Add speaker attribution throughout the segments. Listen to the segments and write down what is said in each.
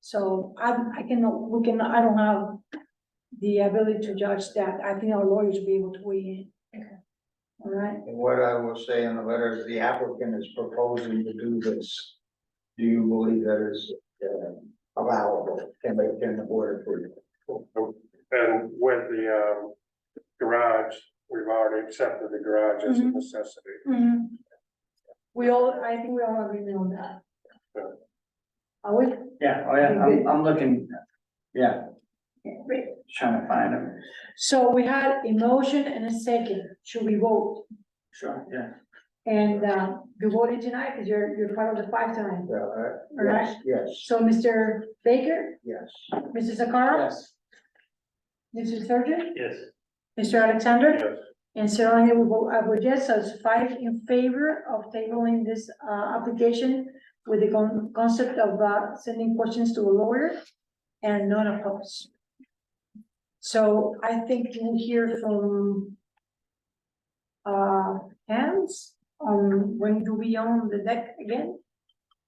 Speaker 1: So I, I cannot, we can, I don't have the ability to judge that. I think our lawyers will be able to weigh in.
Speaker 2: Okay.
Speaker 1: All right,
Speaker 3: And what I will say in the letter is the applicant is proposing to do this. Do you believe that is uh, allowable? Can they, can the board approve?
Speaker 4: And with the, um, garage, we've already accepted the garage as a
Speaker 1: Mhm.
Speaker 4: necessity.
Speaker 1: Mhm. We all, I think we all agree on that.
Speaker 4: Yeah.
Speaker 1: Are we?
Speaker 5: Yeah, oh yeah, I'm, I'm looking, yeah,
Speaker 1: Great.
Speaker 5: trying to find them.
Speaker 1: So we had a motion and a second. Should we vote?
Speaker 5: Sure, yeah.
Speaker 1: And, uh, you voted tonight because you're, you're part of the five tonight.
Speaker 3: Yeah, uh,
Speaker 1: Alright.
Speaker 3: Yes, yes,
Speaker 1: So Mr. Baker,
Speaker 3: yes.
Speaker 1: Mrs. Sakara,
Speaker 5: Yes.
Speaker 1: Mr. Surgeon,
Speaker 4: Yes.
Speaker 1: Mr. Alexander,
Speaker 4: Yes,
Speaker 1: and Sarah Lee will vote, I would yes, so it's five in favor of tabling this, uh, application with the con- concept of, uh, sending questions to a lawyer and not a post. So I think we'll hear from uh, Hans on when do we own the deck again?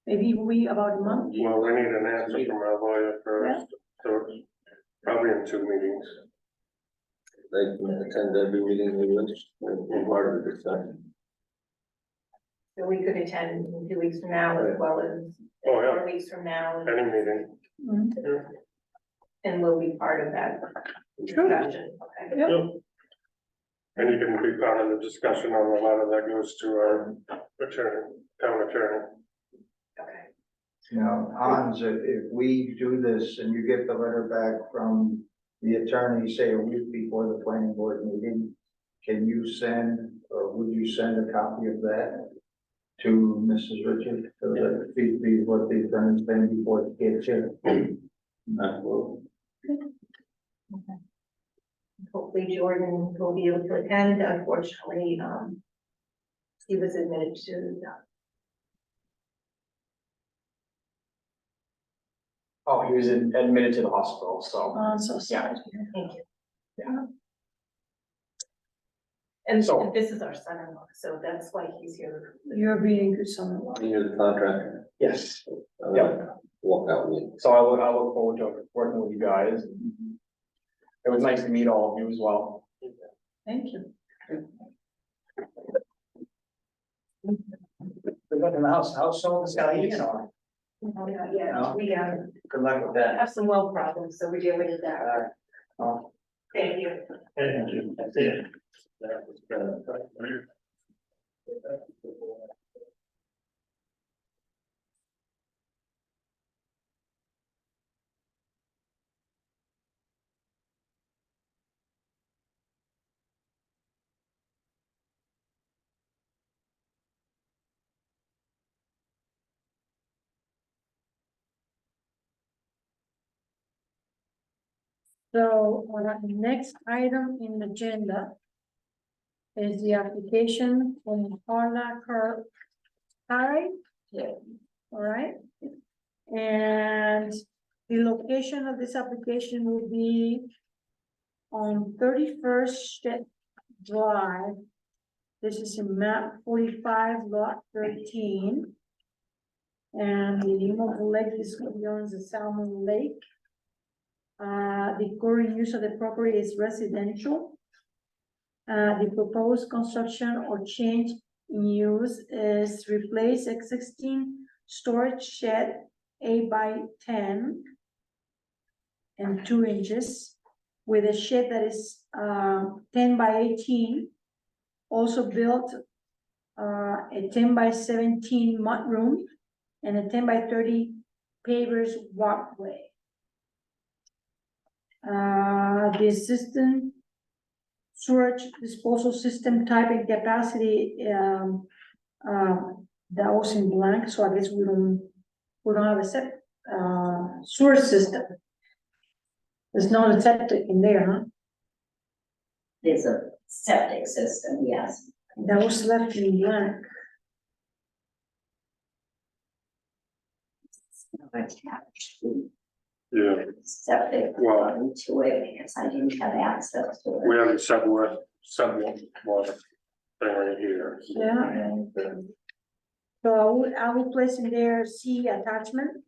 Speaker 1: Maybe we about a month?
Speaker 4: well, we need an answer from our lawyer first, so probably in two meetings.
Speaker 6: They can attend every meeting they wish, and be part of the discussion.
Speaker 2: So we could attend in two weeks from now as well as
Speaker 4: Oh, yeah,
Speaker 2: four weeks from now,
Speaker 4: any meeting.
Speaker 1: Mm.
Speaker 2: and we'll be part of that discussion. Okay.
Speaker 1: Yep.
Speaker 4: Yep. And you can be part of the discussion on the letter that goes to our attorney, town attorney.
Speaker 2: Okay.
Speaker 3: Now, Hans, if, if we do this and you get the letter back from the attorney, say a week before the planning board meeting, can you send, or would you send a copy of that to Mrs. Richard? So that the, the, what the attorney's been before it gets here?
Speaker 6: That will,
Speaker 2: Hopefully Jordan will be able to attend, unfortunately, um. He was admitted to the
Speaker 5: Oh, he was admitted to the hospital, so.
Speaker 1: Uh, so sorry.
Speaker 2: thank you.
Speaker 5: Yeah.
Speaker 2: And
Speaker 5: So-
Speaker 2: this is our son-in-law, so that's why he's here.
Speaker 1: You're being good son-in-law.
Speaker 6: you're the contractor.
Speaker 5: Yes,
Speaker 6: I'm
Speaker 5: Yeah.
Speaker 6: gonna Walk out with.
Speaker 5: so I look, I look forward to working with you guys. It was nice to meet all of you as well.
Speaker 1: Thank you.
Speaker 5: Good luck in the house, how's some of the stallions are?
Speaker 2: Oh, Yeah, we um,
Speaker 5: Good luck with that.
Speaker 2: have some well problems, so we're dealing with that.
Speaker 5: Oh,
Speaker 2: Thank you.
Speaker 4: Thank you.
Speaker 1: So on our next item in the agenda is the application from Carla Car- Curry. All right. And the location of this application will be on thirty-first Drive. This is in map forty-five lot thirteen. And the name of the lake is Williams Salmon Lake. Uh, the current use of the property is residential. Uh, the proposed construction or change in use is replace existing storage shed eight by ten and two inches with a shed that is, um, ten by eighteen. Also built, uh, a ten by seventeen mudroom and a ten by thirty pavers walkway. Uh, the system sewage disposal system type and capacity, um, um, that was in blank, so I guess we don't, we don't have a set, uh, sewer system. There's not a septic in there,
Speaker 7: There's a septic system, yes.
Speaker 1: huh? That was left in blank.
Speaker 7: It's not Attached to
Speaker 4: Yeah,
Speaker 7: septic
Speaker 4: Wow.
Speaker 7: onto it because I didn't have access to
Speaker 4: we
Speaker 7: it.
Speaker 4: have a subway, subway water thing right here.
Speaker 1: Yeah. So I would, I would place in there C attachment.